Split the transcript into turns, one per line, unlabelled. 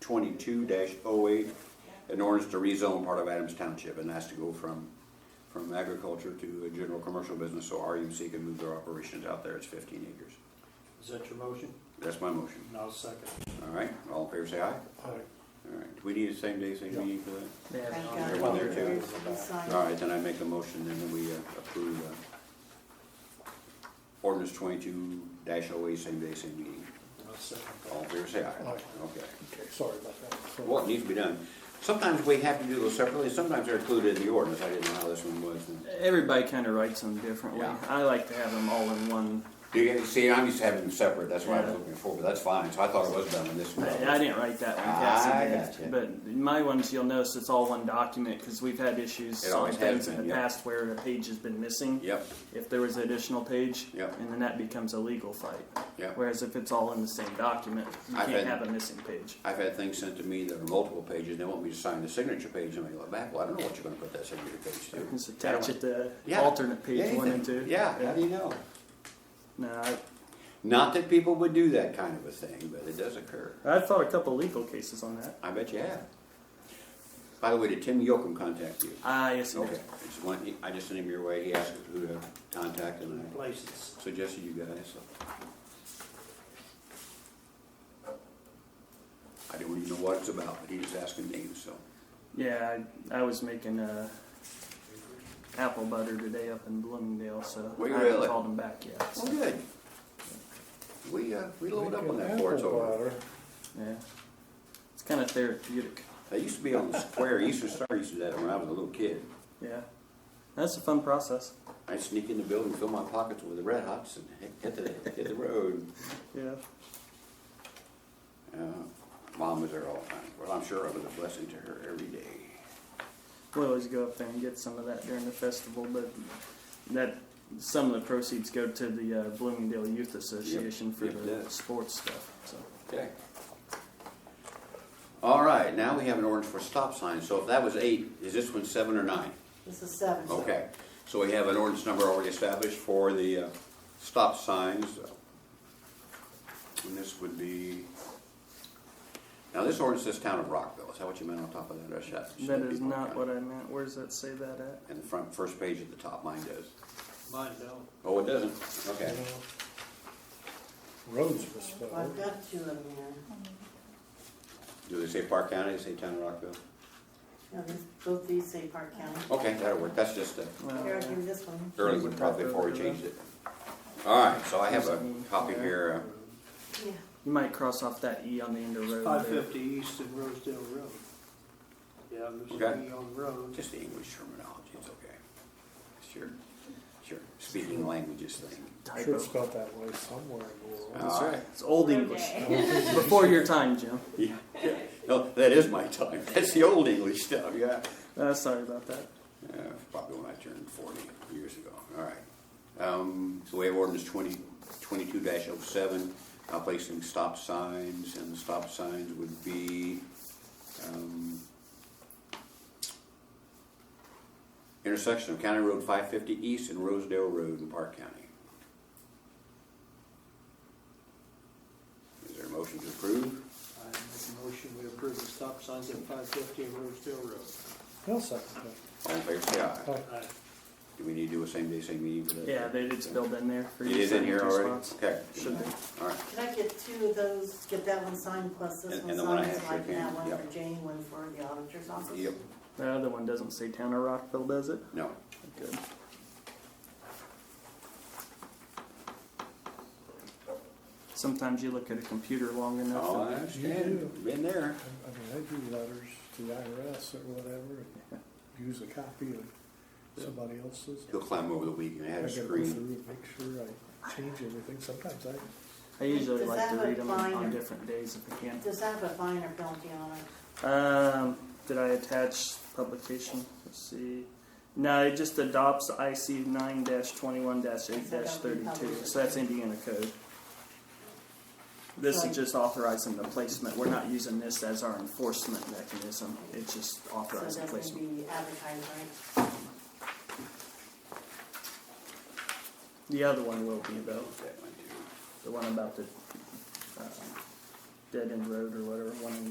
twenty-two oh 8 an ordinance to rezone part of Adams Township, and that's to go from, from agriculture to a general commercial business, so RUMC can move their operations out there, it's fifteen acres.
Is that your motion?
That's my motion,
And I'll second.
all right, all in favor say aye,
All right.
all right, do we need a same day, same meeting for that?
They have it on
There's
there.
one there too.
You sign.
All right, then I make a motion, and then we uh, approve uh, ordinance twenty-two dash oh eight, same day, same meeting.
I'll second
All in
that.
favor, Oh, say aye.
Aye.
Okay.
Okay, sorry about that. So-
Well, it needs to be done. Sometimes we have to do those separately, and sometimes they're included in the ordinance. I didn't know how this one was.
Everybody kind of writes them differently.
Yeah.
I like to have them all in one.
Do you, see, I'm used to having them separate, that's why I was looking for, but that's fine, so I thought it was done in this one.
I, I didn't write that one,
Ah, I
Cassie
gotcha.
did. But my ones, you'll notice it's all one document because we've had issues
It
on
always has
things in
been,
the
yep.
past where a page has been missing.
Yep,
If there was an additional page,
Yep.
and then that becomes a legal fight.
Yep.
Whereas if it's all in the same document, you
I've
can't
had-
have a missing page.
I've had things sent to me that are multiple pages, they want me to sign the signature page, and I go back, well, I don't know what you're gonna put that signature page to.
Just attach it to
Yeah.
alternate page one
Anything.
and two.
Yeah, how do you know?
No, I,
Not that people would do that kind of a thing, but it does occur.
I've fought a couple legal cases on that.
I bet you have. By the way, did Tim Yocum contact you?
Ah, yes, you
Okay,
did.
it's one, I just sent him your way, he asked who to contact, and I
Places.
suggested you guys, so. I don't even know what it's about, but he was asking names, so.
Yeah, I, I was making uh, apple butter today up in Bloomingdale, so
Were you
I haven't
really?
called them back yet. so,
Well, Oh, good. We, uh, we loaded up on that
Apple
before it's over.
butter.
yeah, it's kind of therapeutic.
That used to be on the square, Eastern Star used to do that when I was a little kid.
Yeah, that's a fun process.
I'd sneak in the building, fill my pockets with the Red Hots and hit the, hit the road.
Yeah,
Uh, Mom was there all the time. Well, I'm sure I was a blessing to her every day.
we always go up there and get some of that during the festival, but that some of the proceeds go to the uh, Bloomingdale Youth Association for
Yep,
the
yeah.
sports stuff. So
Okay. All right, now we have an ordinance for stop signs. So if that was eight, is this one seven or nine?
This is seven. so-
Okay, so we have an ordinance number already established for the uh, stop signs. And this would be, now this ordinance says town of Rockville, is that what you meant on top of that? Or should I- should
that
be
is
more
not
kind?
what I meant. Where does that say that at?
And the front, first page at the top, mine does.
Mine don't.
Oh, it doesn't? Okay.
Roads were
Well, I've
spelled.
got two of them here.
Do they say Park County, they say town of Rockville?
No, these, both these say Park County.
Okay, that'll work, that's just a,
Well,
Here, I'll give you this one.
early one probably before we changed it. All right, so I have a copy here,
Yeah.
you might cross off that E on the end of road.
Five
there.
fifty East of Rosedale Road. Yeah, there's
Okay.
an E on the
uh,
road.
just the English terminology, it's okay. Sure, sure, speaking languages thing.
Sure
Typo.
it's got that way somewhere in the world.
All right.
Ah, It's old English. Before your time, Jim.
Yeah, yeah. No, that is my time, that's the old English stuff, yeah.
Uh, sorry about that.
Uh, Probably when I turned forty years ago, all right. Um, so we have ordinance twenty, twenty-two dash oh seven, now placing stop signs, and the stop signs would be, um, intersection of County Road five fifty east and Rosedale Road in Park County. Is there a motion to approve?
I make a motion, we approve the stop signs at five fifty of Rosedale Road.
I'll second that.
All in favor, say aye.
Oh,
Aye.
Do we need to do a same day, same meeting for that?
Yeah, they did spilled in there for
It
you.
is in here already?
Spots.
Okay.
Should be.
All right.
Can I get two of those, get that one signed plus this
And-
one
and the one I
signed,
have
so I
for
can have
Jane,
one
yep.
for Jane, one for the auditor's office?
Yep,
The other one doesn't say Town of Rockville, does it?
no.
Good. Sometimes you look at a computer long enough.
Oh, I
and-
understand. Been there.
I I mean, they do letters to the IRS or whatever, and use a copy of somebody else's.
He'll climb over the weekend. I
I
had a
gotta go through
screen.
and make sure I change everything. Sometimes I,
I usually
Does
like
that
to
have a
read them
binder?
on different days if I can.
Does that have a fine or penalty on it?
Um, did I attach publication? Let's see. No, it just adopts IC 9 21 8 32. So that's Indiana code. This is just authorizing the placement. We're not using this as our enforcement mechanism. It's just
So
authorizing
that
placement.
would be advertised, right?
The other one will be though.
That one too.
The one about the uh, dead end road or whatever. One in